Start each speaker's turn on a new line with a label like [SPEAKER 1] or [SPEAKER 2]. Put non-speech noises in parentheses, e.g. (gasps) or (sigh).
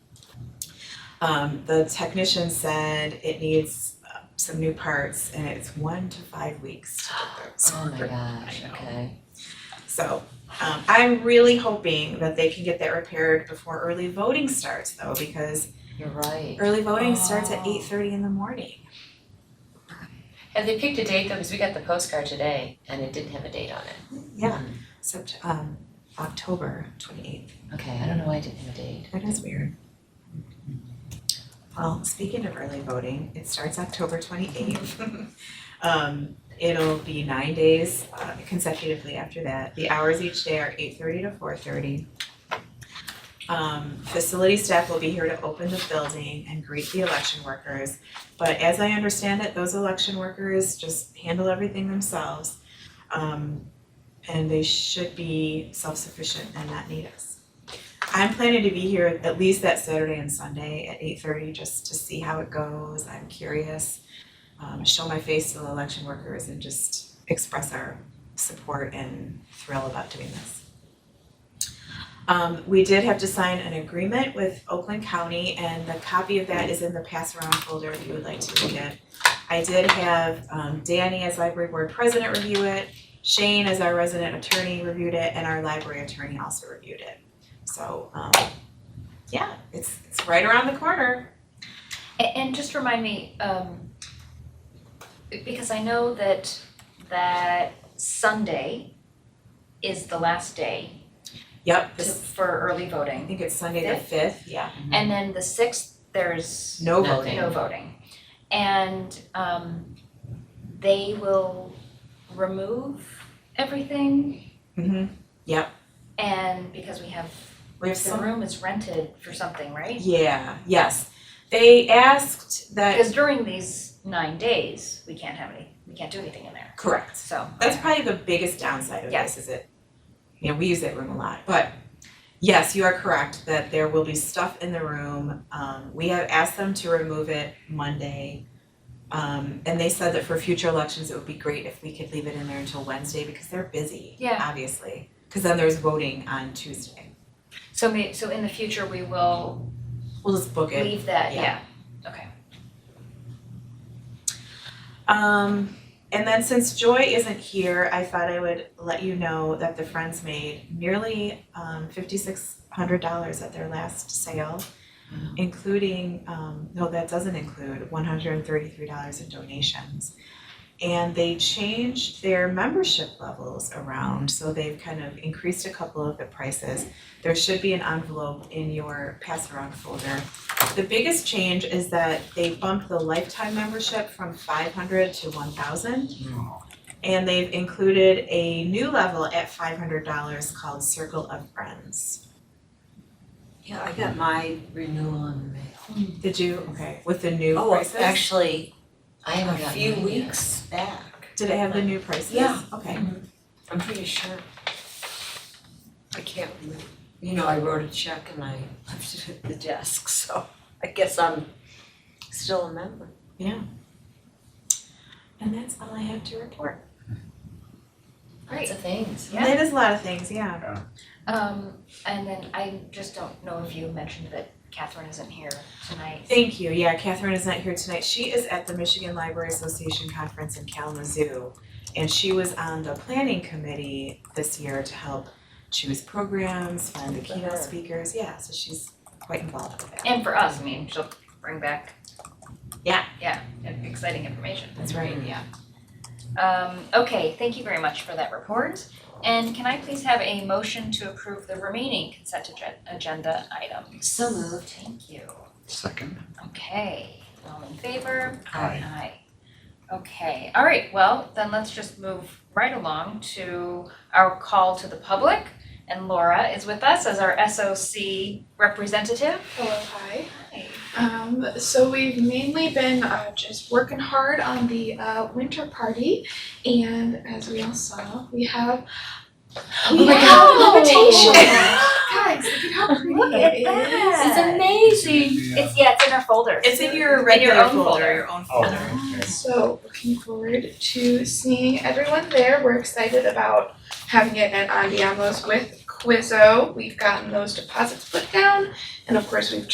[SPEAKER 1] Um, the technician said it needs uh, some new parts and it's one to five weeks to get those.
[SPEAKER 2] (gasps) Oh my gosh,
[SPEAKER 1] I know.
[SPEAKER 2] okay.
[SPEAKER 1] So, um, I'm really hoping that they can get that repaired before early voting starts though, because
[SPEAKER 2] You're right.
[SPEAKER 1] early voting starts at
[SPEAKER 2] Oh.
[SPEAKER 1] eight thirty in the morning.
[SPEAKER 2] Have they picked a date though? Because we got the postcard today and it didn't have a date on it. Hmm.
[SPEAKER 1] Yeah, Sept- um, October twenty eighth.
[SPEAKER 2] Okay, I don't know why it didn't have a date.
[SPEAKER 1] That is weird. Well, speaking of early voting, it starts October twenty-eighth. (laughs) Um, it'll be nine days uh, consecutively after that. The hours each day are eight thirty to four thirty. Um, facility staff will be here to open the building and greet the election workers. But as I understand it, those election workers just handle everything themselves. Um, and they should be self-sufficient and not need us. I'm planning to be here at least that Saturday and Sunday at eight thirty, just to see how it goes, I'm curious. Um, show my face to the election workers and just express our support and thrill about doing this. Um, we did have to sign an agreement with Oakland County, and the copy of that is in the pass around folder if you would like to read it. I did have, um, Danny as library board president review it, Shane as our resident attorney reviewed it, and our library attorney also reviewed it. So, um, yeah, it's, it's right around the corner.
[SPEAKER 3] A- And, just remind me, um, be- because I know that, that Sunday is the last day
[SPEAKER 1] Yep,
[SPEAKER 3] to-
[SPEAKER 1] this,
[SPEAKER 3] for early
[SPEAKER 1] I
[SPEAKER 3] voting.
[SPEAKER 1] think it's Sunday the fifth, yeah.
[SPEAKER 3] And then the sixth, there's
[SPEAKER 1] No
[SPEAKER 2] Nothing.
[SPEAKER 1] voting.
[SPEAKER 3] no voting. And, um, they will remove everything
[SPEAKER 1] Mm-hmm.
[SPEAKER 3] and because we have,
[SPEAKER 1] We have
[SPEAKER 3] the
[SPEAKER 1] some,
[SPEAKER 3] room is rented for something, right?
[SPEAKER 1] yeah, yes. They asked that,
[SPEAKER 3] Because during these nine days, we can't have any, we can't do anything in there,
[SPEAKER 1] correct.
[SPEAKER 3] so.
[SPEAKER 1] That's probably the biggest downside of
[SPEAKER 3] Yeah.
[SPEAKER 1] this, is it, you know, we use that room a lot, but yes, you are correct that there will be stuff in the room. Um, we have asked them to remove it Monday. Um, and they said that for future elections, it would be great if we could leave it in there until Wednesday because they're busy,
[SPEAKER 3] Yeah.
[SPEAKER 1] obviously. Cause then there's voting on Tuesday.
[SPEAKER 3] So may, so in the future, we will
[SPEAKER 1] We'll just book it.
[SPEAKER 3] leave that,
[SPEAKER 1] Yeah.
[SPEAKER 3] yeah, okay.
[SPEAKER 1] Um, and then since Joy isn't here, I thought I would let you know that the Friends made nearly um, fifty-six hundred dollars at their last sale, including, um, no, that doesn't include one hundred and thirty-three dollars in donations. And they changed their membership levels around, so they've kind of increased a couple of the prices. There should be an envelope in your pass-around folder the biggest change is that they bumped the lifetime membership from five hundred to one thousand. And they've included a new level at five hundred dollars called Circle of Friends.
[SPEAKER 4] Yeah, I got my renewal in the mail.
[SPEAKER 1] Did you, okay, with the new
[SPEAKER 4] Oh,
[SPEAKER 1] prices?
[SPEAKER 4] it's actually
[SPEAKER 2] I
[SPEAKER 4] a
[SPEAKER 2] haven't gotten
[SPEAKER 4] few
[SPEAKER 2] mine yet.
[SPEAKER 4] weeks back.
[SPEAKER 1] Did it have the new prices?
[SPEAKER 4] Yeah.
[SPEAKER 1] Okay,
[SPEAKER 4] I'm pretty sure. I can't remember. You know, I wrote a check and I (laughs) left it at the desk, so I guess I'm still a member.
[SPEAKER 1] and that's all I have to report.
[SPEAKER 2] Lots of things.
[SPEAKER 3] Yeah.
[SPEAKER 1] That is a lot of things, yeah.
[SPEAKER 3] Um, and then I just don't know if you mentioned that Catherine isn't here tonight.
[SPEAKER 1] Thank you, yeah, Catherine is not here tonight, she is at the Michigan Library Association Conference in Kalamazoo. And she was on the planning committee this year to help choose programs, find the
[SPEAKER 2] Good for
[SPEAKER 1] keynote
[SPEAKER 2] her.
[SPEAKER 1] speakers, yeah, so she's quite involved with that.
[SPEAKER 3] And for us, I mean, she'll bring back.
[SPEAKER 1] Yeah.
[SPEAKER 3] Yeah, exciting information.
[SPEAKER 1] That's right, yeah.
[SPEAKER 3] Um, okay, thank you very much for that report. And can I please have a motion to approve the remaining consent agen- agenda items?
[SPEAKER 2] So moved.
[SPEAKER 3] Thank you.
[SPEAKER 5] Second.
[SPEAKER 3] Okay, all in favor?
[SPEAKER 5] Aye.
[SPEAKER 3] Aye. Okay, all right, well, then let's just move right along to our call to the public. And Laura is with us as our SOC representative.
[SPEAKER 6] Hello, hi. Um, so we've mainly been uh, just working hard on the uh, winter party, and as we all saw, we have we
[SPEAKER 3] my
[SPEAKER 6] have
[SPEAKER 3] God.
[SPEAKER 6] limitations. Guys, look at how pretty
[SPEAKER 3] (laughs) Look at
[SPEAKER 6] it is.
[SPEAKER 3] that. It's amazing. It's, yeah, it's in our
[SPEAKER 1] (laughs)
[SPEAKER 3] folder.
[SPEAKER 1] uh, It's in your
[SPEAKER 3] In your
[SPEAKER 1] regular
[SPEAKER 3] own
[SPEAKER 1] folder, your own
[SPEAKER 5] Oh,
[SPEAKER 1] folder.
[SPEAKER 5] okay.
[SPEAKER 6] So looking forward to seeing everyone there. We're excited about having it at Andiamo's with Quizzo. We've gotten those deposits put down, and of course we've